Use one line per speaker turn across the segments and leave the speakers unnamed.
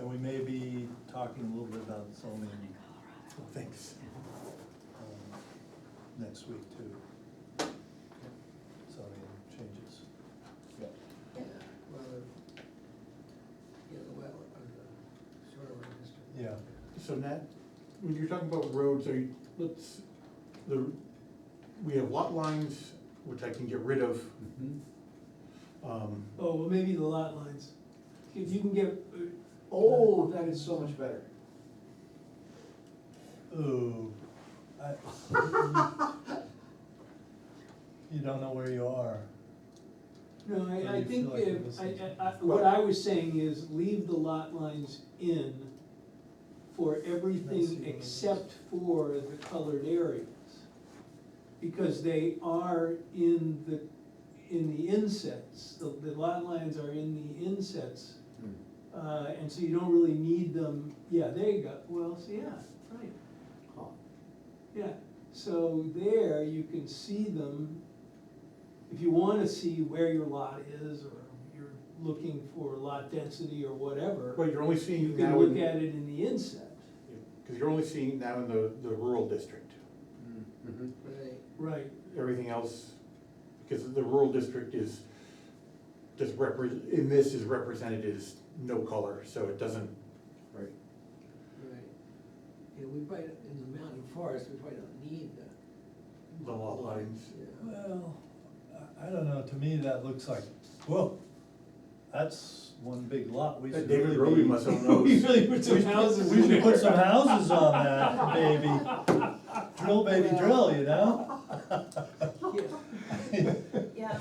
we may be talking a little bit about zoning things um, next week too. Zoning changes.
Yeah, well, the, yeah, the well, or the sewer register.
Yeah.
So Nat, when you're talking about roads, are you, let's, the, we have lot lines, which I can get rid of.
Hmm?
Um,
Oh, well, maybe the lot lines. If you can get, oh, that is so much better.
Ooh. I- You don't know where you are.
No,
Or
I, I
you
think
feel like you're
if, I,
missing
I, I- what I was saying is leave the lot lines in for
Nice, you know,
everything
that's-
except for the colored areas. Because they are in the, in the insets, the, the lot lines are in the insets. Uh, and so you don't really need them, yeah, there you go, well, so yeah, right. Yeah, so there you can see them, if you wanna see where your lot is, or you're looking for lot density or whatever,
But you're only
you
seeing
can
now
look
in,
at it in the inset.
cause you're only seeing now in the, the rural district.
Right,
Right.
Everything else, because the rural district is, just repre, in this is represented as no color, so it doesn't. Right.
right. Yeah, we probably, in the mountain forest, we probably don't need the.
The lot lines.
Yeah.
Well, I, I don't know, to me that looks like, whoa, that's one big lot, we
That
should really
David
be.
Roby must own those.
We really put
We
some
should-
houses
We
in
should
there.
put some houses on that, baby. Drill, baby, drill, you know?
Yeah,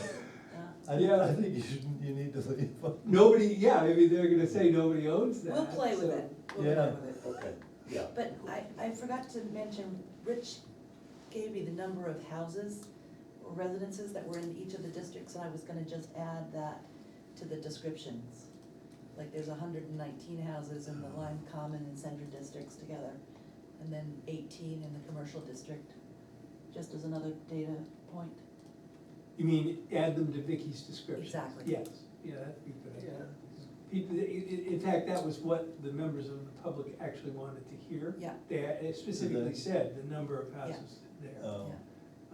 I, I think you shouldn't, you need to leave. them.
Nobody, yeah, I mean, they're gonna say nobody owns that.
we'll play with
so-
it, we'll
Yeah.
play with it.
Okay, yeah.
But I, I forgot to mention, Rich gave me the number of houses or residences that were in each of the districts, and I was gonna just add that to the descriptions. Like, there's hundred and nineteen houses in the
Oh.
Lime Common and Center districts together, and then eighteen in the commercial district, just as another data point.
You mean, add them to Vicky's description?
Exactly.
Yes, yeah, that'd be a good. idea.
Yeah.
People, i- i- in fact, that was what the members of the public actually wanted to hear.
Yeah.
They a- specifically said the number of houses there.
Oh.
Yeah.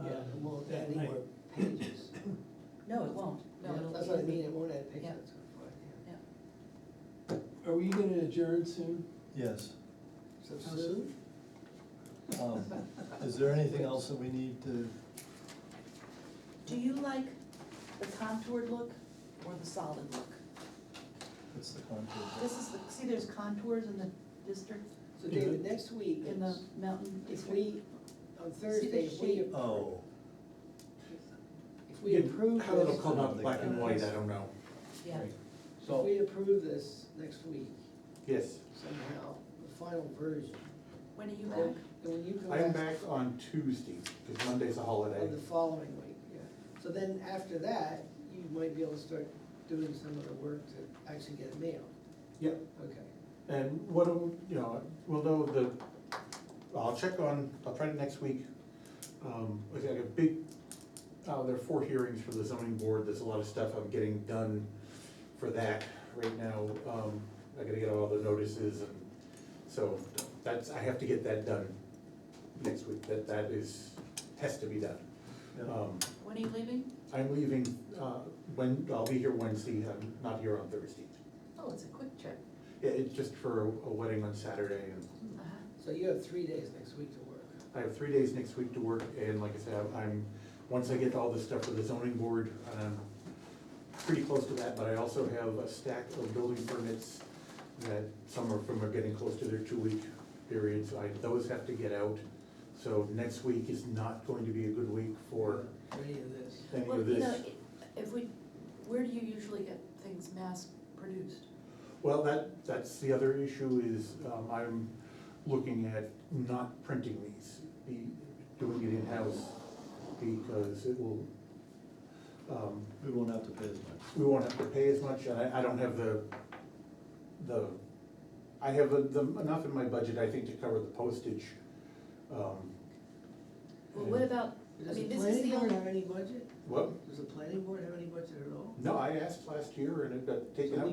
uh,
Yeah, it won't
that
add any
night.
more pages.
No, it won't, no,
Yeah,
it'll.
That's
be
what I
in the-
mean, it won't add pages,
Yeah.
that's what I
Yeah,
Are we gonna adjourn soon?
Yes.
thought, yeah.
How
So soon?
soon?
Um, Is there anything else that we need to,
do you like the contoured look or the solid look?
what's the contour?
This is, the see, there's contours in the district,
So David, next week,
in the mountain
if
district.
we, on Thursday, if we,
shape?
Oh,
if we approve
How it'll
this,
come out black and white, I don't know.
Yeah,
if we approve this next week
Yes.
somehow, the final version.
when are you
Then
back?
then when you go
I'm
back
back on Tuesday, because Monday's a holiday.
Of the following week, yeah. So then after that, you might be able to start doing some of the work to actually get it mailed.
Yep,
Okay.
and what, do- you know, we'll know the, I'll check on, I'll try it next week. Um, I got a big, uh, there are four hearings for the zoning board, there's a lot of stuff I'm getting done for that right now. Um, I gotta get all the notices and, so that's, I have to get that done next week, that, that is, has to be done.
yeah.
Um,
When are you leaving?
I'm leaving, uh, when, I'll be here Wednesday, I'm not here on Thursday.
Oh, it's a quick trip.
Yeah, it's just for a a wedding on Saturday, and
Uh-huh.
So you have three days next week to work.
I have three days next week to work, and like I said, I'm- I'm, once I get all this stuff for the zoning board, I'm pretty close to that, but I also have a stack of building permits that some of them are getting close to their two-week periods, I, those have to get out. So next week is not going to be a good week for
Any of this.
any
Well,
of
you know,
this.
i- if we, where do you usually get things mass produced?
Well, that, that's the other issue is, um, I'm looking at not printing these, be, doing it in-house, because it will, um,
We won't have to pay as much.
we won't have to pay as much, and I, I don't have the, the, I have the- the, enough in my budget, I think, to cover the postage. um,
Well, what
and-
about, I
Does the
mean, this is
planning
the
board
only.
have any budget?
What?
Does the planning board have any budget at all?
No, I asked last year and it got taken
So
up
we